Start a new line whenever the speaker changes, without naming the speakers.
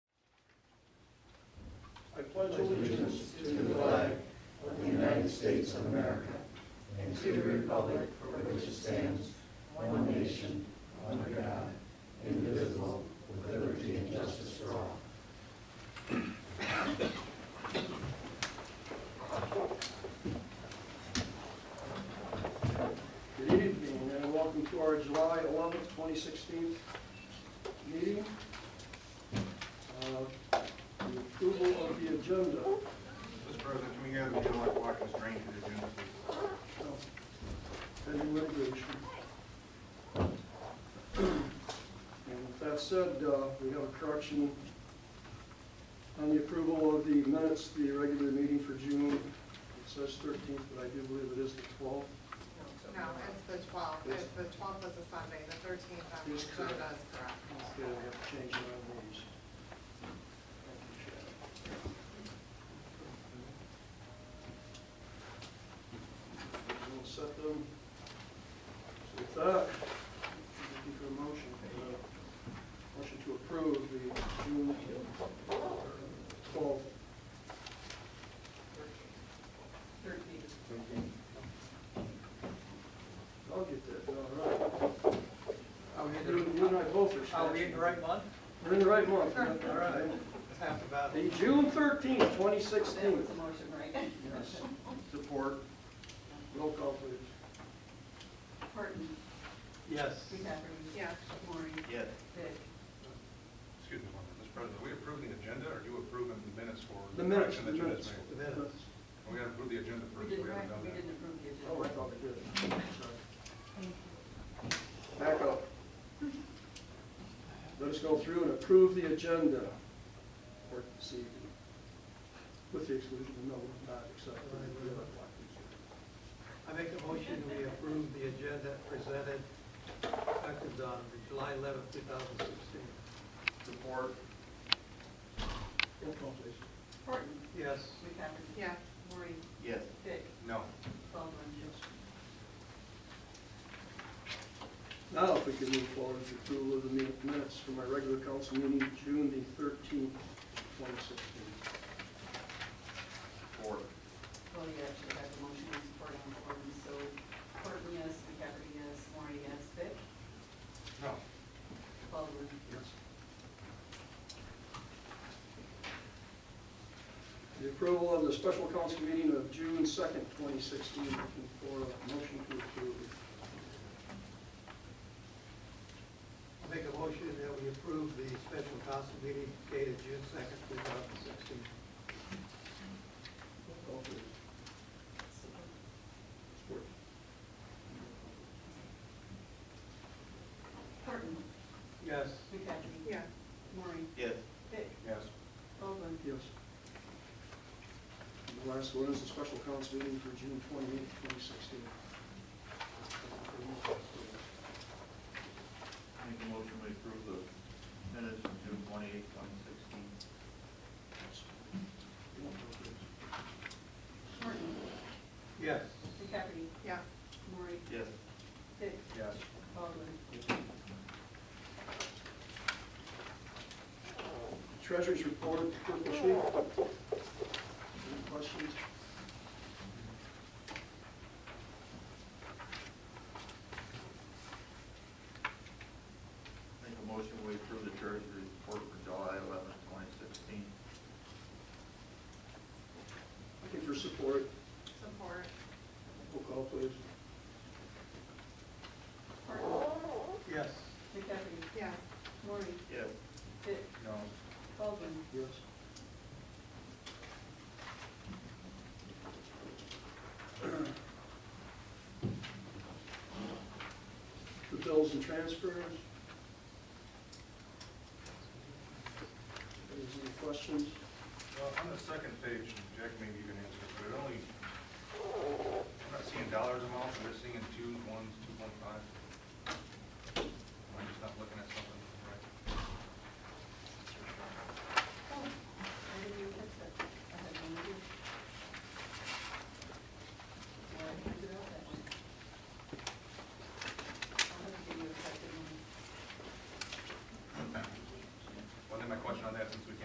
pledge allegiance to the flag of the United States of America and to the republic for which it stands, one nation, under God, indivisible, with liberty and justice for all. Good evening and welcome to our July 11th, 2016 meeting. Uh, The approval of the agenda.
Mr. President, can we have the yellow block and drain to the agenda, please?
Pending litigation. And with that said, uh, we have a correction on the approval of the minutes, the regular meeting for June. It says 13th, but I do believe it is the 12th.
No, it's the twelfth,
Yes.
the twelfth is a Sunday, the thirteenth on the
Yes, correct.
agenda is correct.
Okay, we have to change our names. We'll set them. So With that, looking for a motion. Uh, Motion to approve the June twelfth. I'll get that, all right.
Are we in
Oh, You
the,
you and I both are.
are we in the right month?
We're in the right month.
All
right. That's half the battle.
The June thirteenth, twenty
That
sixteen.
was the motion, right?
Yes. Support. Roll call, please.
Horton,
Yes.
McCaffrey.
Yeah.
Maureen,
Yes.
Vic.
Excuse me, one minute. Mr. President, are we approving the agenda, or you approving the minutes for?
The minutes,
correction
the
that you
minutes.
just made?
the minutes.
We gotta approve the agenda
We
first, we
didn't,
haven't done
we
that.
didn't approve the agenda.
Oh, I thought we did. Sorry. Back up. Let us go through and approve the agenda for this evening. With the exclusion of no, not except for the other block.
I make a motion that we approve the agenda presented effective on July eleventh, two thousand sixteen.
Support.
Roll call, please.
Horton,
Yes.
McCaffrey.
Yeah,
Maureen,
Yes.
Vic,
No.
Baldwin.
Now, if we can move forward to approval of the min- minutes from our regular council meeting, June the thirteenth, twenty sixteen.
Support.
Well, you actually have the motion and support on Horton, so Horton, yes, McCaffrey, yes, Maureen, yes, Vic,
No.
Baldwin.
Yes. The approval of the special council meeting of June second, twenty sixteen, looking for a motion to approve.
I make a motion that we approve the special council meeting dated June second, two thousand sixteen.
Roll call, please. Support.
Horton,
Yes.
McCaffrey.
yeah,
Maureen,
Yes.
Vic,
Yes.
Baldwin.
Yes. And The last one is the special council meeting for June twenty-eighth, twenty sixteen.
Make a motion to approve the minutes from June twenty-eighth, twenty sixteen.
Horton,
Yes.
McCaffrey,
yeah.
Maureen,
Yes.
Vic,
Yes.
Baldwin.
Treasurer's report, purple sheet. Any questions?
Make a motion to approve the treasurer's report for July eleventh, twenty sixteen.
Looking for support.
Support,
Roll call, please.
Horton,
Yes.
McCaffrey,
yeah,
Maureen,
Yes.
Vic,
No.
Baldwin.
Yes. The bills and transfers. Any questions?
Well, on the second page, Jack maybe you can answer, but it only, I'm not seeing dollars amounts, I'm just seeing twos, ones, two point five. Am I just not looking at something?